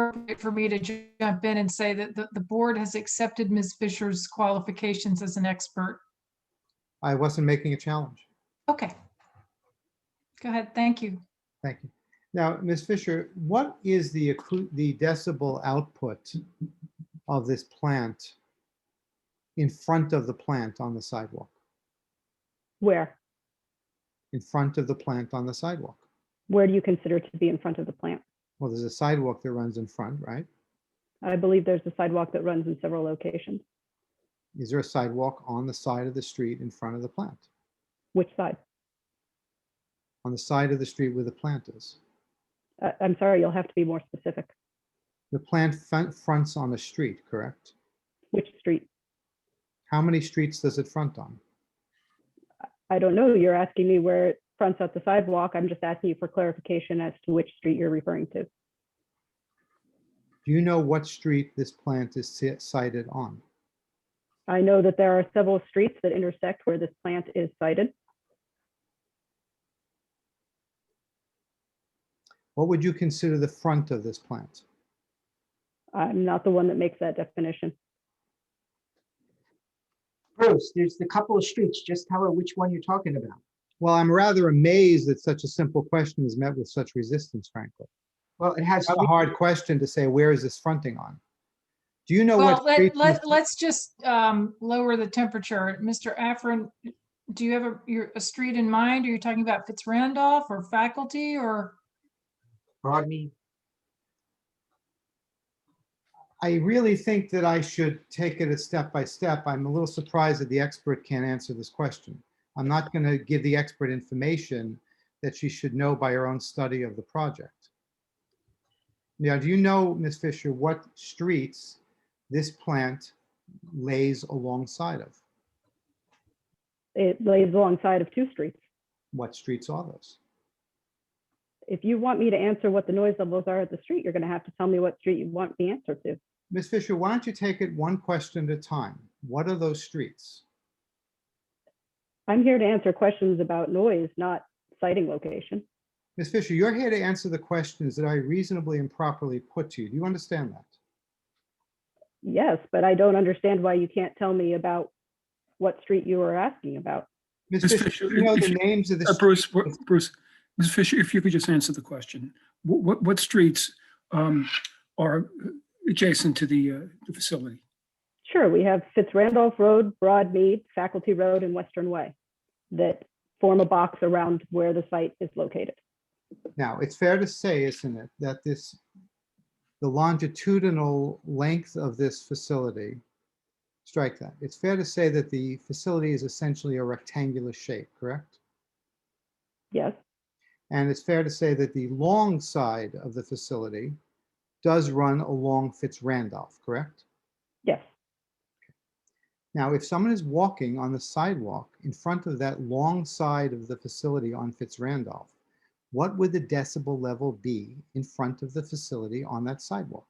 appropriate for me to ju- jump in and say that the, the board has accepted Ms. Fisher's qualifications as an expert. I wasn't making a challenge. Okay. Go ahead. Thank you. Thank you. Now, Ms. Fisher, what is the accu- the decibel output of this plant in front of the plant on the sidewalk? Where? In front of the plant on the sidewalk? Where do you consider to be in front of the plant? Well, there's a sidewalk that runs in front, right? I believe there's a sidewalk that runs in several locations. Is there a sidewalk on the side of the street in front of the plant? Which side? On the side of the street where the plant is? Uh, I'm sorry, you'll have to be more specific. The plant fron- fronts on a street, correct? Which street? How many streets does it front on? I don't know. You're asking me where it fronts out the sidewalk. I'm just asking you for clarification as to which street you're referring to. Do you know what street this plant is si- sited on? I know that there are several streets that intersect where this plant is sited. What would you consider the front of this plant? I'm not the one that makes that definition. Bruce, there's the couple of streets. Just tell her which one you're talking about. Well, I'm rather amazed that such a simple question is met with such resistance, frankly. Well, it has. It's not a hard question to say, where is this fronting on? Do you know Well, Oh, what? let, street let, this- let's just, um, lower the temperature. Mr. Afrin, do you have a, your, a street in mind? Are you talking about Fitzrandolph or faculty or? Rodney, I really think that I should take it a step by step. I'm a little surprised that the expert can't answer this question. I'm not going to give the expert information that she should know by her own study of the project. Now, do you know, Ms. Fisher, what streets this plant lays alongside of? It lays alongside of two streets. What streets are those? If you want me to answer what the noise levels are at the street, you're going to have to tell me what street you want the answer to. Ms. Fisher, why don't you take it one question at a time? What are those streets? I'm here to answer questions about noise, not sighting location. Ms. Fisher, you're here to answer the questions that I reasonably and properly put to you. Do you understand that? Yes, but I don't understand why you can't tell me about what street you were asking about. Ms. Ms. Fisher, Fisher, do you know if the you- names of the, Uh, streets? Bruce, wha- Bruce, Ms. Fisher, if you could just answer the question, Wh- what, what streets um, are adjacent to the, uh, the facility? Sure, we have Fitzrandolph Road, Broadmead, Faculty Road, and Western Way that form a box around where the site is located. now, it's fair to say, isn't it, that this, the longitudinal length of this facility, strike that, it's fair to say that the facility is essentially a rectangular shape, correct? Yes, And it's fair to say that the long side of the facility does run along Fitz Randolph, correct? yes, Now, if someone is walking on the sidewalk in front of that long side of the facility on Fitz Randolph, what would the decibel level be in front of the facility on that sidewalk?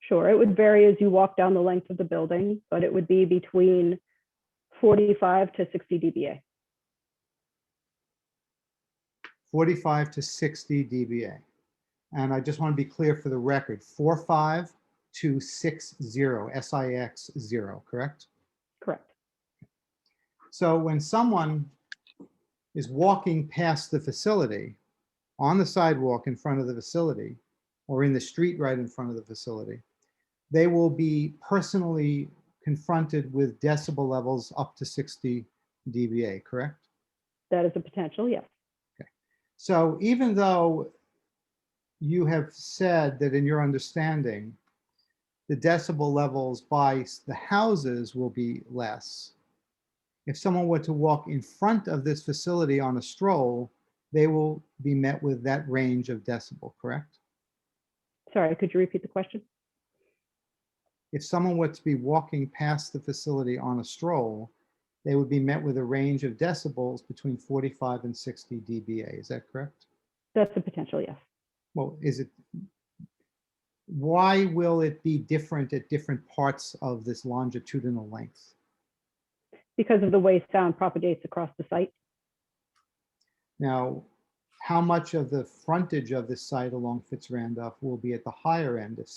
sure. It would vary as you walk down the length of the building, but it would be between 45 to 60 dBA. 45 to 60 dBA. And I just want to be clear for the record, 45 to 60, SIX 0, correct? Correct. So when someone is walking past the facility, on the sidewalk in front of the facility, or in the street right in front of the facility, they will be personally confronted with decibel levels up to 60 dBA, correct? That is a potential, yes. So even though you have said that in your understanding, the decibel levels by s- the houses will be less, if someone were to walk in front of this facility on a stroll, they will be met with that range of decibel, correct? Sorry, could you repeat the question? If someone were to be walking past the facility on a stroll, they would be met with a range of decibels between 45 and 60 dBA. Is that correct? That's a potential, yes. Well, is it, why will it be different at different parts of this longitudinal length? because of the way sound propagates across the site. Now, how much of the frontage of this site along Fitz Randolph will be at the higher end of